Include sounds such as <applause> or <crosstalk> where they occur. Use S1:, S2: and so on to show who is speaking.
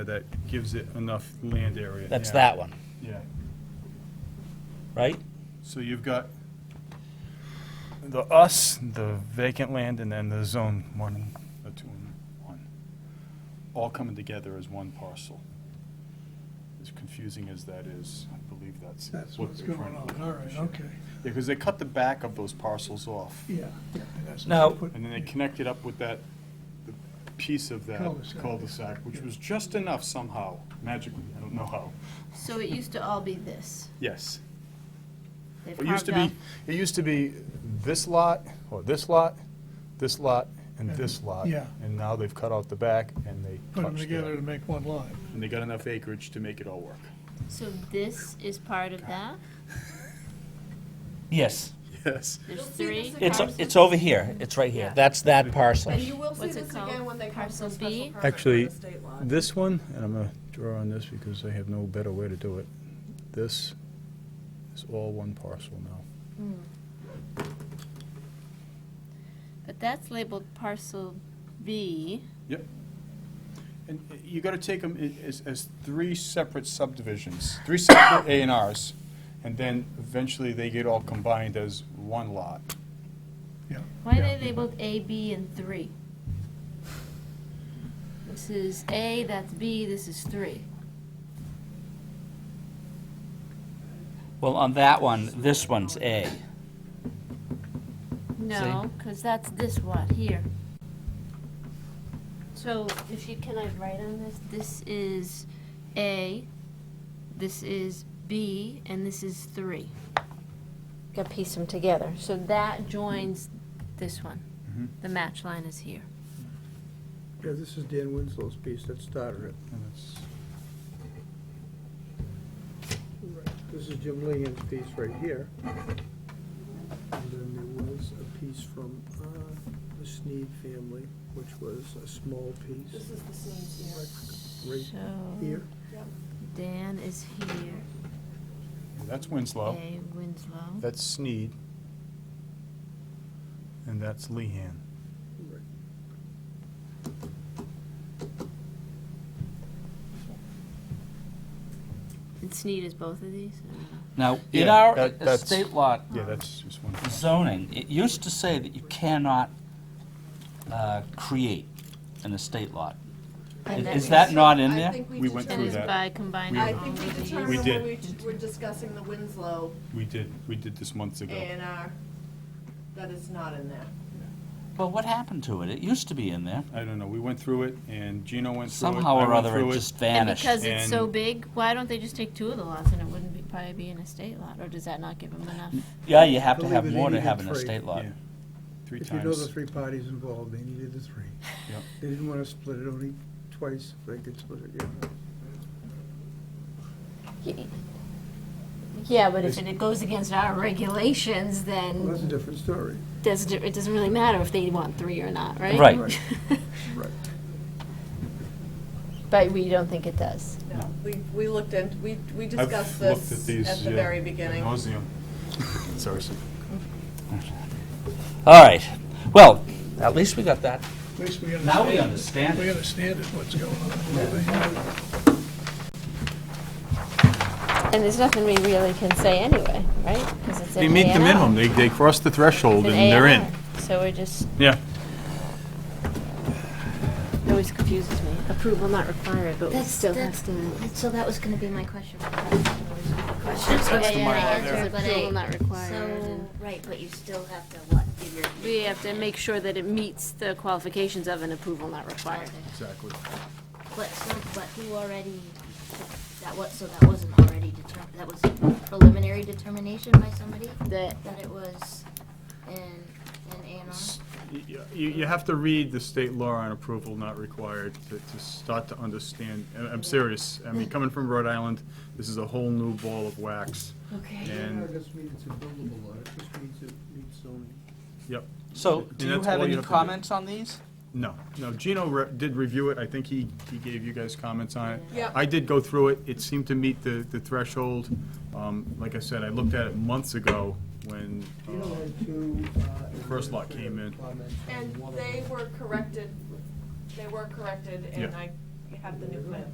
S1: that gives it enough land area.
S2: That's
S1: Yeah.
S2: that one,
S1: Yeah,
S2: right?
S1: so you've got the us, the vacant land, and then the zone one, the two and one, all coming together as one parcel. As confusing as that is, I believe that's.
S3: That's
S1: what
S3: what's
S1: they're
S3: going
S1: trying
S3: on,
S1: to
S3: all right,
S1: accomplish.
S3: okay,
S1: Yeah, because they cut the back of those parcels off,
S3: yeah. and that's what
S2: Now-
S3: they put-
S1: and then they connected up with that, the piece of that
S3: Cul-de-sac.
S1: cul-de-sac, which was just enough somehow, magically, I don't know how.
S4: So it used to all be this.
S1: Yes.
S4: They've
S1: It used to
S4: carved
S1: be, it used to be this lot, or this lot, this lot, and
S3: And-
S1: this lot.
S3: yeah.
S1: And now they've cut out the back and they
S3: Put them
S1: touched it
S3: together
S1: up.
S3: to make one line.
S1: And they got enough acreage to make it all <laughs> work.
S4: off- So this is part of that?
S2: Yes,
S1: Yes.
S4: There's
S5: You'll see
S4: three?
S5: this
S2: it's,
S5: Parcel
S2: it's
S5: B.
S2: over here, it's right here,
S4: Yeah.
S2: that's that parcel.
S5: And you will see
S4: What's it
S5: this
S4: called?
S5: again when they come
S4: Parcel
S5: for a special
S4: B?
S5: permit for
S1: Actually,
S5: the state lot.
S1: This one, and I'm gonna draw on this because I have no better way to do it. This is all one parcel now.
S4: But that's labeled parcel B.
S1: And uh, you gotta take them as, as three separate subdivisions, three separate A and Rs. And then eventually they get all combined as one lot.
S4: Why are
S1: Yeah.
S4: they labeled A, B, and three? This is A, that's B, this is three.
S2: Well, on that one, this one's A.
S4: No, because that's this one here. So if you, can I write on this? This is A, this is B, and this is three. Got to piece them together. So that joins this one.
S1: Mhm.
S4: The match line is here.
S6: Yeah, this is Dan Winslow's piece that started it.
S1: And it's-
S6: This is Jim Lehan's piece right here. And then there was a piece from uh, the Sneed family, which was a small piece
S5: This is the scene here.
S6: right
S4: So
S6: here.
S4: Dan is here,
S1: That's Winslow.
S4: A Winslow.
S1: That's Sneed. And that's Lehan.
S6: Right.
S4: And Sneed is both of these? I don't know.
S2: Now, in
S1: Yeah,
S2: our
S1: that- that's-
S2: estate lot
S1: Yeah, that's just one.
S2: zoning, it used to say that you cannot uh, create an estate lot.
S4: And
S2: Is
S4: then-
S2: that not in
S5: I
S2: there?
S5: think
S1: We went
S4: And
S1: through
S4: is
S1: that.
S5: determined-
S4: by combining
S5: I
S4: all
S5: think
S4: of
S5: we
S4: these?
S5: determined
S1: We
S5: when
S1: did.
S5: we d- were discussing the Winslow
S1: We did, we did this months
S5: A
S1: ago.
S5: and R, that it's not in there.
S2: Well, what happened to it? It used to be in there.
S1: I don't know, we went through it, and Gino went through it.
S2: Somehow
S1: I
S2: or
S1: went
S2: other,
S1: through
S2: it just
S4: And
S2: vanished.
S4: because it's so
S1: And-
S4: big, why don't they just take two of the lots and it wouldn't be, probably be an estate lot, or does that not give them enough?
S2: Yeah, you have to
S6: Believe
S2: have
S6: it,
S2: more to
S6: eighty
S2: have
S6: to
S2: an
S6: three.
S2: estate lot.
S1: Yeah. Three
S6: If you know the
S1: times.
S6: three parties involved, they needed the three.
S1: Yep.
S6: They didn't want to split it only twice, if they could split it, yeah.
S4: Yeah, but if it goes against our regulations,
S6: Well, that's a
S4: then
S6: different story.
S4: does, it doesn't really matter if they want three or not, right?
S2: Right.
S6: Right.
S4: <laughs> But we don't think it does.
S5: No, we, we looked in, we, we
S1: I've
S5: discussed
S1: looked
S5: this
S1: these,
S5: at the
S1: yeah,
S5: very
S1: ad
S5: beginning.
S1: nauseam. <laughs> Sorry, sir.
S2: All right. Well, at least we got that.
S3: At least we understand.
S2: Now we understand
S3: We
S2: it.
S3: understand it, what's going on.
S4: And there's nothing we really can say anyway, right? Because it's
S1: They meet the
S2: Um,
S1: minimum, they, they cross the threshold, and they're in.
S4: So we're just,
S1: Yeah.
S4: it always confuses me. Approval not required, but we
S7: That's-
S4: still
S7: that's-
S4: have to.
S7: So that was gonna be my question. Questions,
S4: Yeah, yeah, I answered
S7: but
S4: Approval
S7: I,
S4: not required.
S7: so,
S4: and-
S7: right, but you still have to what, do your.
S4: We have to make sure that it meets the qualifications of an approval not required.
S1: Exactly.
S7: But, so, but who already, that was, so that wasn't already determined, that was preliminary determination by somebody?
S4: That,
S7: That it was in, in A and R?
S1: You, you have to read the state law on approval not required to, to start to understand, and I'm serious. I mean, coming from Rhode Island, this is a whole new ball of wax.
S7: Okay.
S1: And,
S6: It doesn't mean it's a buildable lot, it just means it meets zoning.
S1: yep.
S2: So,
S1: And
S2: do you
S1: that's
S2: have
S1: all you
S2: any
S1: have to do.
S2: comments on these?
S1: No, no, Gino re- did review it, I think he, he gave you guys comments on it.
S5: Yeah.
S1: I did go through it, it seemed to meet the, the threshold. Um, Like I said, I looked at it months ago when, um,
S6: You know, had two, uh,
S1: First lot came in.
S6: comments on
S5: And
S6: one of
S5: they were corrected, they were corrected, and
S1: Yeah.
S5: I have the new plan.